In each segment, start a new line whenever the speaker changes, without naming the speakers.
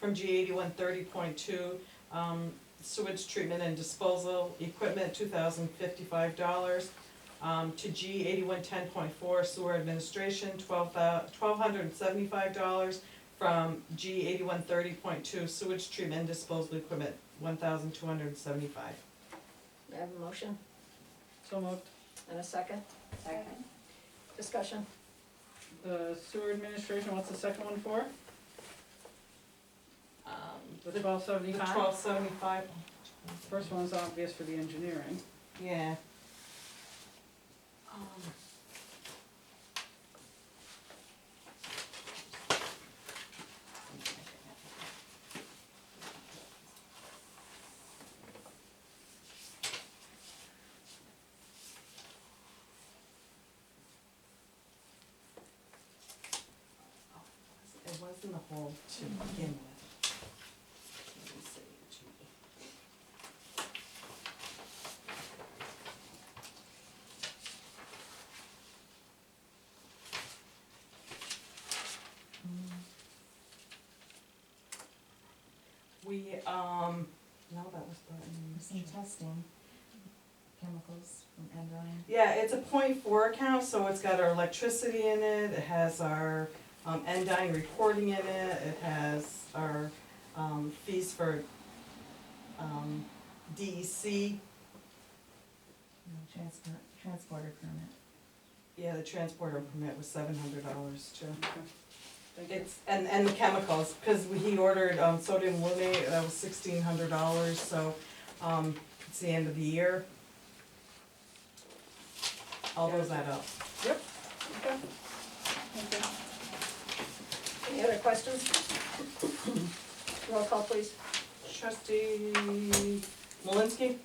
from G eighty-one thirty point two, um, sewage treatment and disposal equipment, two thousand fifty-five dollars. Um, to G eighty-one ten point four sewer administration, twelve thou, twelve hundred and seventy-five dollars. From G eighty-one thirty point two sewage treatment and disposal equipment, one thousand two hundred and seventy-five.
May I have a motion
So moved.
and a second?
Second.
Discussion?
The sewer administration, what's the second one for? The
Um,
twelve
the
seventy-five?
twelve seventy-five.
First one's obvious for the engineering.
Yeah. Um, It was in the hole to begin with. Let me see, Judy. We, um, no, that was
Some
button.
testing, chemicals from Enron.
Yeah, it's a point four account, so it's got our electricity in it, it has our, um, Endine reporting in it, it has our, um, fees for, um, DEC,
No, transport, transporter permit.
yeah, the transporter permit was seven hundred dollars too.
Thank you.
It's, and, and the chemicals, because he ordered um, sodium luminate, that was sixteen hundred dollars, so, um, it's the end of the year. All those add up.
Okay. Thank you.
Any other questions? Roll call, please.
Trustee Malinsky?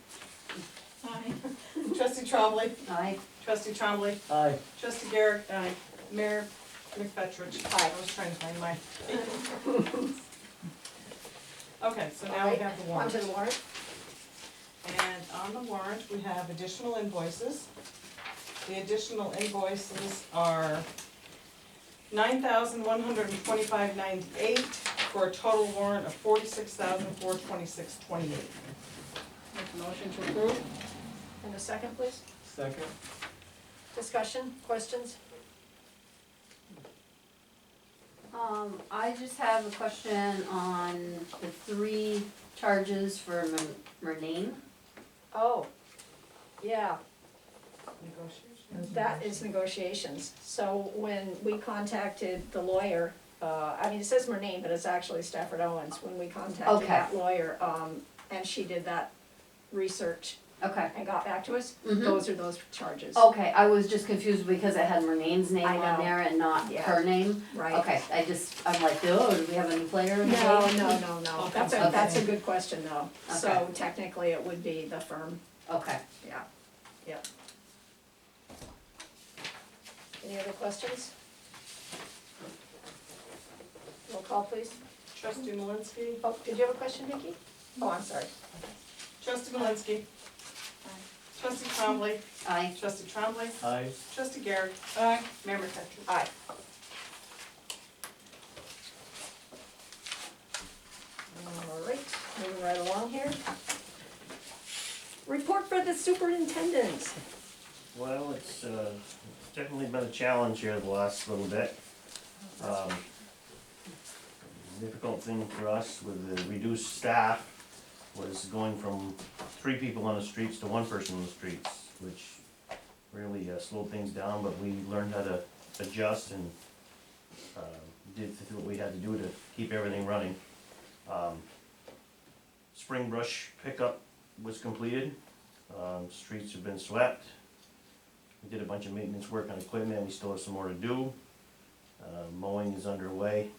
Aye. Trustee Trombley?
Aye.
Trustee Trombley?
Aye.
Trustee Garrett?
Aye.
Mayor McFetrich?
Aye.
I was trying to find my. Okay, so now we have the warrant.
Onto the warrant.
And on the warrant, we have additional invoices. The additional invoices are nine thousand one hundred and twenty-five ninety-eight for a total warrant of forty-six thousand four twenty-six twenty-eight.
Make a motion to approve?
And a second, please.
Second?
Discussion, questions?
Um, I just have a question on the three charges for Mer- Murnane.
Oh, yeah,
Negotiation.
Those are
that
those.
is negotiations. So when we contacted the lawyer, uh, I mean, it says her name, but it's actually Stafford Owens, when we
Okay.
contacted that lawyer, um, and she did that research
Okay.
and got back to us,
Mhm.
those are those charges,
Okay, I was just confused because it had Murnane's name
I
on
know.
there and not
Yeah.
her name.
right?
Okay, I just, I'm like, oh, do we have any player in the
No,
game?
no, no, no, that's a,
Okay.
that's a good question though. So
Okay.
technically, it would be the firm,
Okay.
yeah, yeah. Any other questions? Roll call, please.
Trustee Malinsky?
Oh, did you have a question, Nikki? Oh, I'm sorry.
Trustee Malinsky? Trustee Trombley?
I,
Trustee Trombley?
Aye.
Trustee Garrett? Aye. Mayor McFetrich?
Aye. All right, moving right along here. Report for the superintendent.
Well, it's, uh, it's definitely been a challenge here the last little bit. Um, Difficult thing for us with the reduced staff was going from three people on the streets to one person on the streets, which really uh, slowed things down, but we learned how to adjust and, um, did what we had to do to keep everything running. Um, Spring brush pickup was completed, um, streets have been swept, we did a bunch of maintenance work on equipment, we still have some more to do. Uh, mowing is underway.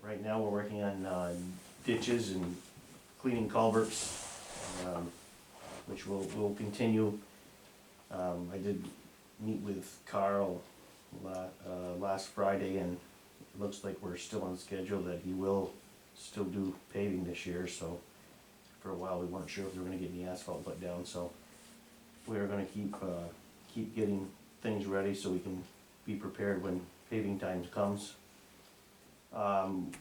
Right now, we're working on, uh, ditches and cleaning culverts, um, which will, will continue. Um, I did meet with Carl la- uh, last Friday and it looks like we're still on schedule that he will still do paving this year, so. For a while, we weren't sure if we were gonna get any asphalt put down, so we're gonna keep, uh, keep getting things ready so we can be prepared when paving times comes. Um,